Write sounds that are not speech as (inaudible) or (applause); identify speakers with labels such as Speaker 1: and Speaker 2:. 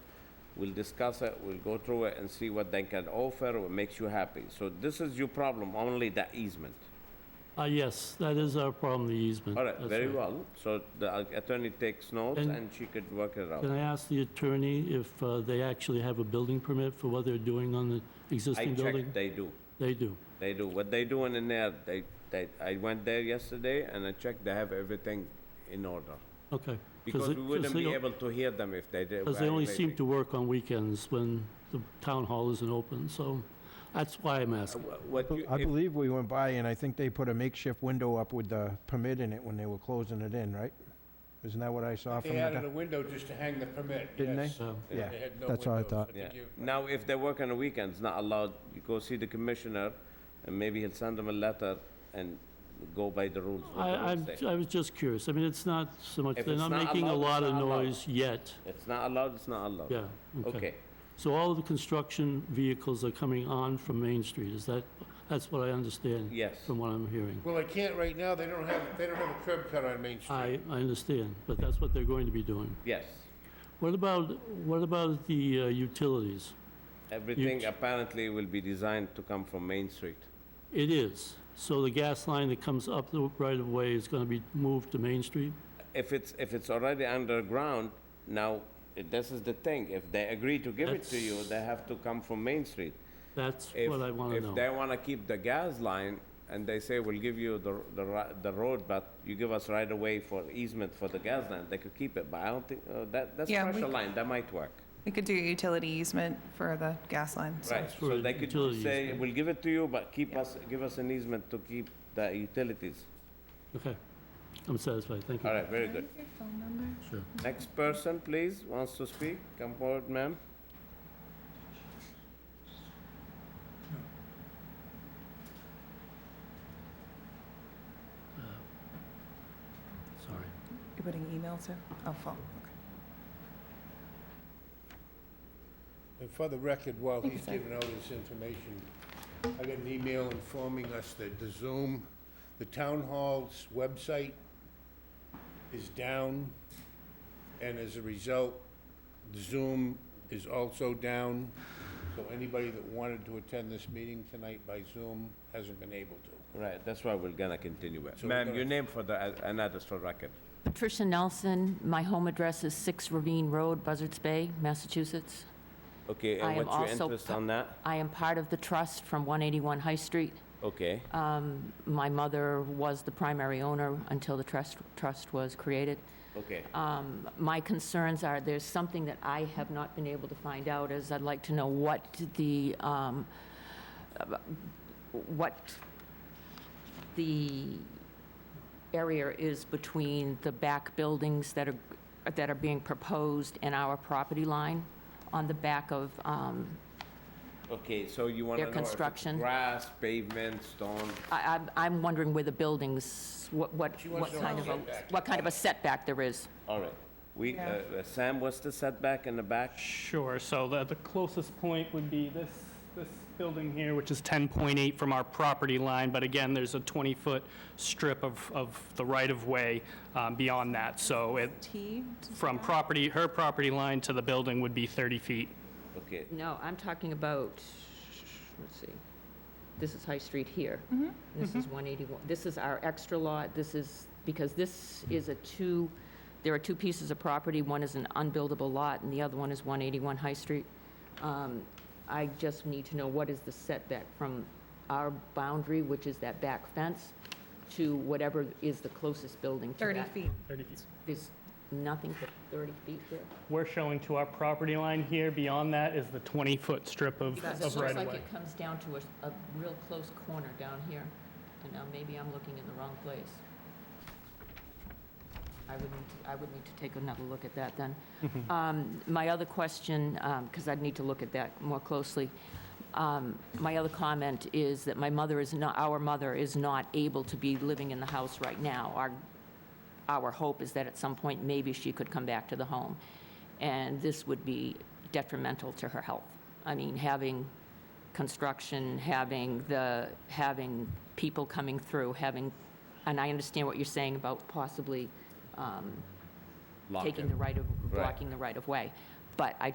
Speaker 1: We'll discuss it, we'll go through it and see what they can offer, what makes you happy. So this is your problem, only the easement.
Speaker 2: Uh, yes, that is our problem, the easement.
Speaker 1: All right,
Speaker 2: That's
Speaker 1: very
Speaker 2: right.
Speaker 1: well. So the uh, attorney takes notes
Speaker 2: And-
Speaker 1: and she could work it
Speaker 2: Can
Speaker 1: out.
Speaker 2: I ask the attorney if uh, they actually have a building permit for what they're doing on the
Speaker 1: I
Speaker 2: existing building?
Speaker 1: checked, they do.
Speaker 2: They do.
Speaker 1: They do. What they doing in there, they, they, I went there yesterday and I checked, they have everything in order.
Speaker 2: Okay.
Speaker 1: Because
Speaker 2: it-
Speaker 1: we wouldn't
Speaker 2: they
Speaker 1: be
Speaker 2: don't-
Speaker 1: able to hear them if they did.
Speaker 2: Because they only seem to work on weekends when the town hall isn't open, so that's why I'm asking.
Speaker 1: What you,
Speaker 3: I
Speaker 1: if-
Speaker 3: believe we went by, and I think they put a makeshift window up with the permit in it when they were closing it in, right? Isn't that what I saw from
Speaker 4: They
Speaker 3: the...
Speaker 4: added a
Speaker 3: do-
Speaker 4: window just to hang the permit,
Speaker 3: Didn't they?
Speaker 4: yes.
Speaker 2: So,
Speaker 3: Yeah,
Speaker 4: They had no
Speaker 3: that's what I
Speaker 4: windows.
Speaker 3: thought.
Speaker 4: think
Speaker 1: yeah.
Speaker 4: you-
Speaker 1: Now, if they work on the weekends, not allowed, you go see the commissioner and maybe he'll send them a letter and go by the rules. what
Speaker 2: I,
Speaker 1: the rules
Speaker 2: I'm-
Speaker 1: say.
Speaker 2: I was just curious. I mean, it's not so much,
Speaker 1: If
Speaker 2: they're
Speaker 1: it's
Speaker 2: not
Speaker 1: not
Speaker 2: making a
Speaker 1: allowed, it's
Speaker 2: lot of
Speaker 1: not allowed.
Speaker 2: noise yet.
Speaker 1: It's not allowed, it's not allowed.
Speaker 2: Yeah, okay.
Speaker 1: Okay,
Speaker 2: So all of the construction vehicles are coming on from Main Street, is that, that's what I understand?
Speaker 1: Yes.
Speaker 2: From what I'm hearing.
Speaker 4: Well, they can't right now, they don't have, they don't have a curb cut on Main Street.
Speaker 2: I, I understand, but that's what they're going to be doing.
Speaker 1: yes.
Speaker 2: What about, what about the uh, utilities?
Speaker 1: Everything
Speaker 2: ch-
Speaker 1: apparently will be designed to come from Main Street.
Speaker 2: It is. So the gas line that comes up the right-of-way is going to be moved to Main Street?
Speaker 1: If it's, if it's already underground, now, eh, this is the thing, if they agree to give it to you, they have to come from Main Street.
Speaker 2: That's
Speaker 1: If-
Speaker 2: what I want to know.
Speaker 1: If they want to keep the gas line, and they say, we'll give you the, the, ri- the road, but you give us right away for easement for the gas line, they could keep it, but I don't think, uh, that, that's
Speaker 5: Yeah, we
Speaker 1: pressure
Speaker 5: c-
Speaker 1: line, that might work.
Speaker 5: We could do a utility easement for the gas line. so-
Speaker 1: Right,
Speaker 2: for
Speaker 1: so they could
Speaker 2: utility
Speaker 1: say,
Speaker 2: easement.
Speaker 1: we'll give it to you, but keep us, give us an easement to keep the utilities.
Speaker 2: Okay. I'm satisfied, thank you.
Speaker 1: All right, very good.
Speaker 5: Phone number?
Speaker 1: Next person, please, wants to speak, come forward, ma'am.
Speaker 2: Sorry.
Speaker 5: You're putting email to, oh, phone, okay.
Speaker 4: And for the record, while
Speaker 5: Think
Speaker 4: he's
Speaker 5: so.
Speaker 4: giving out this information, I got an email informing us that the Zoom, the town hall's website is down, and as a result, Zoom is also down. So anybody that wanted to attend this meeting tonight by Zoom hasn't been able to.
Speaker 1: Right, that's why we're gonna continue it.
Speaker 4: we're
Speaker 1: Ma'am,
Speaker 4: gonna-
Speaker 1: your name for the, and address for record.
Speaker 6: Patricia Nelson, my home address is 6 Ravine Road, Buzzards Bay, Massachusetts.
Speaker 1: Okay, and
Speaker 6: I am
Speaker 1: what's your
Speaker 6: also
Speaker 1: interest
Speaker 6: pa-
Speaker 1: on that?
Speaker 6: I am part of the trust from 181 High Street.
Speaker 1: Okay,
Speaker 6: Uh, My mother was the primary owner until the trust, trust was created.
Speaker 1: okay.
Speaker 6: Um, My concerns are, there's something that I have not been able to find out, is I'd like to know what the, um, uh, what the area is between the back buildings that are, that are being proposed and our property line on the back of, um,
Speaker 1: Okay, so you wanna know
Speaker 6: Their
Speaker 1: if it's
Speaker 6: construction.
Speaker 1: grass, pavement, stone?
Speaker 6: I, I'm- I'm wondering where the buildings, what, what,
Speaker 4: wants
Speaker 6: what
Speaker 4: to know
Speaker 6: kind of, a
Speaker 4: setback.
Speaker 6: what kind of a setback there is.
Speaker 1: All right. We, uh,
Speaker 5: Yeah.
Speaker 1: uh, Sam, what's the setback in the back?
Speaker 7: Sure, so the, the closest point would be this, this building here, which is 10.8 from our property line, but again, there's a 20-foot strip of, of the right-of-way um, beyond that, so it,
Speaker 5: T? does
Speaker 7: from
Speaker 5: that-
Speaker 7: property, her property line to the building would be 30 feet.
Speaker 1: Okay,
Speaker 6: No, I'm talking about, let's see, this is High Street here. This is 181, this is our extra lot, this is, because this is a two, there are two pieces of property, one is an unbuildable lot, and the other one is 181 High Street. Um, I just need to know what is the setback from our boundary, which is that back fence, to whatever is the closest building to that.
Speaker 5: 30 feet.
Speaker 7: 30 feet.
Speaker 6: There's nothing but 30 feet there.
Speaker 7: We're showing to our property line here, beyond that is the 20-foot strip of,
Speaker 6: Because
Speaker 7: of
Speaker 6: it looks like
Speaker 7: right-of-way.
Speaker 6: it comes down to a, a real close corner down here, and now maybe I'm looking in the wrong place. I would need, to- I would need to take another look at that
Speaker 7: (laughs)
Speaker 6: then. Um, My other question, because I'd need to look at that more closely, um, my other comment is that my mother is not, our mother is not able to be living in the house right now. Our our hope is that at some point, maybe she could come back to the home. And this would be detrimental to her health. I mean, having construction, having the, having people coming through, having, and I understand what you're saying about possibly um,
Speaker 1: lock
Speaker 6: taking
Speaker 1: it.
Speaker 6: the right of,
Speaker 1: Right.
Speaker 6: blocking the right of way. But I